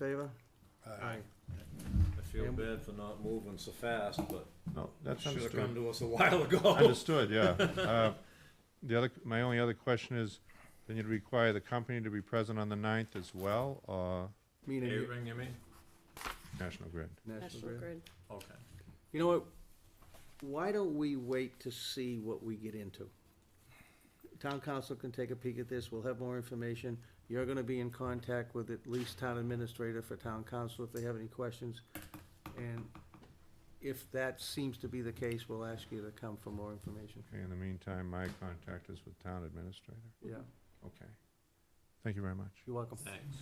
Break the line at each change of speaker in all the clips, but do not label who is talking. in favor?
I
I feel bad for not moving so fast, but
No, that's
Should have come
understood.
to us a while ago.
Understood, yeah. Uh, The other, my only other question is, then you'd require the company to be present on the ninth as well, or
Meaning you-
Ring, you mean?
National Grid?
National Grid.
Okay.
You know what? Why don't we wait to see what we get into? Town council can take a peek at this, we'll have more information. You're gonna be in contact with at least town administrator for town council if they have any questions. And if that seems to be the case, we'll ask you to come for more information.
Okay, in the meantime, my contact is with town administrator.
Yeah,
Okay. Thank you very much.
you're welcome.
Thanks.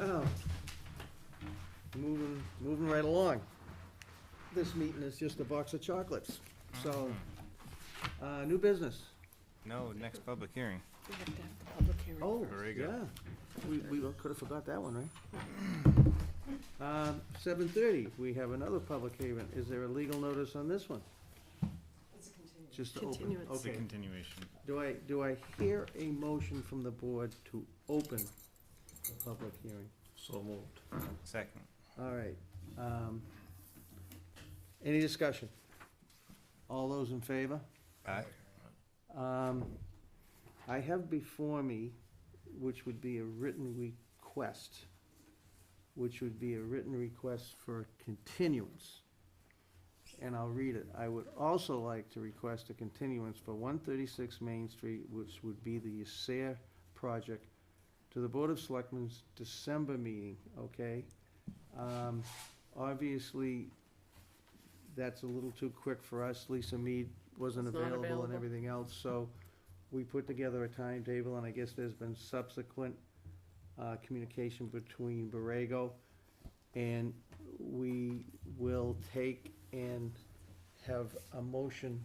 Oh, Moving, moving right along. This meeting is just a box of chocolates, so, uh, new business.
No, next public hearing.
We have to have the public hearing.
Oh,
Very
yeah.
good.
We, we could have forgot that one, right? Um, seven thirty, we have another public hearing. Is there a legal notice on this one? It's a Just
Continuance.
to
It's a
open, okay.
continuation.
Do I, do I hear a motion from the board to open the public hearing?
so moved.
Second.
All right. um, Any discussion? All those in favor?
Aye.
Um, I have before me, which would be a written request, which would be a written request for continuance. And I'll read it. I would also like to request a continuance for one thirty-six Main Street, which would be the Ysair project, to the Board of Selectmen's December meeting, okay? Um, obviously, that's a little too quick for us. Lisa Mead wasn't
It's not
available and
available.
everything else, so we put together a timetable, and I guess there's been subsequent, uh, communication between Borrego, and we will take and have a motion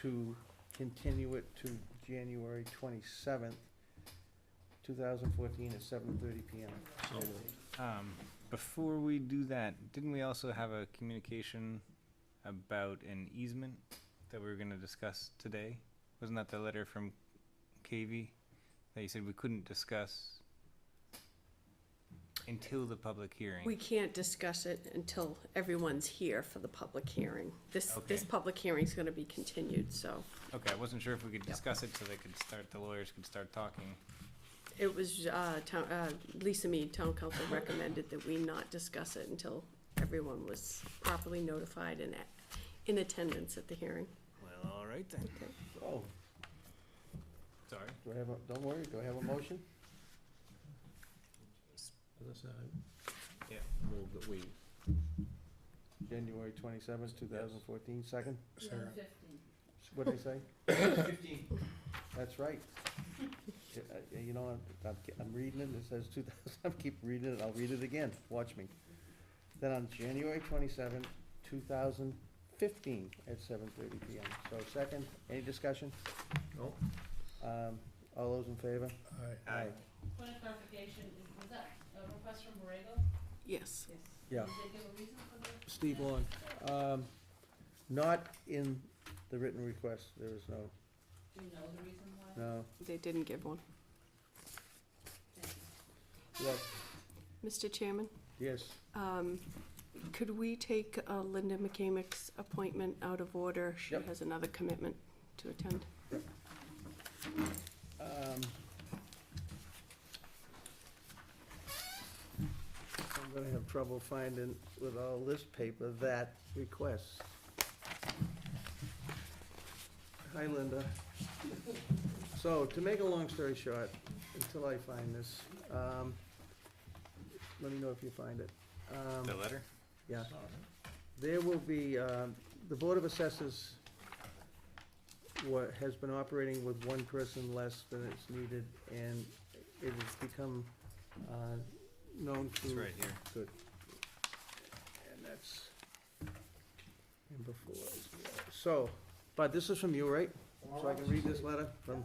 to continue it to January twenty-seventh, two thousand fourteen, at seven thirty PM.
So moved.
Um, before we do that, didn't we also have a communication about an easement that we were gonna discuss today? Wasn't that the letter from KV that you said we couldn't discuss until the public hearing?
We can't discuss it until everyone's here for the public hearing. This, this
Okay.
public hearing's gonna be continued, so
Okay, I wasn't sure if we could discuss it so they could start, the lawyers could start talking.
it was, uh, town, uh, Lisa Mead, town council recommended that we not discuss it until everyone was properly notified and at- in attendance at the hearing.
Well, all right then.
Oh,
Sorry.
do I have a, don't worry, do I have a motion?
Other side?
Yeah.
Move that we,
January twenty-seventh, two thousand fourteen, second?
Sarah.
What'd I say? That's right. Yeah, uh, You know, I'm- I'm, ke- I'm reading it, it says two thousand, I keep reading it, I'll read it again, watch me. Then on January twenty-seventh, two thousand fifteen, at seven thirty PM. So second, any discussion?
no,
Um, all those in favor?
Aye.
Aye.
Point of clarification, is, was that a request from Borrego?
Yes.
Yes.
Yeah.
Did they give a reason for the?
Steve Long, um, not in the written request, there is no,
Do you know the reason why?
no,
They didn't give one.
Thank you.
yes,
Mr. Chairman?
yes.
Um, Could we take uh, Linda McCamick's appointment out of order? She
Yep.
has another commitment to attend.
Um, I'm gonna have trouble finding with all this paper that request. Hi, Linda. So, to make a long story short, until I find this, um, let me know if you find it. Um,
The letter?
yeah. There will be, um, the Board of Assessors what, has been operating with one person less than it's needed, and it has become, uh, known to.
It's right here.
Good. And that's, and before, as well. so, but this is from you, right? So I can read this letter from,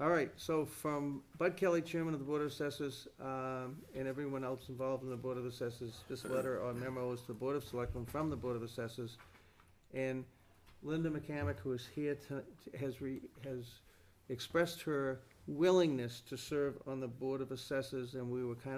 all right, so from Bud Kelly, Chairman of the Board of Assessors, um, and everyone else involved in the Board of Assessors, this letter or memo is to the Board of Selectmen from the Board of Assessors. And Linda McCamick, who is here to, has re, has expressed her willingness to serve on the Board of Assessors, and we were kind of.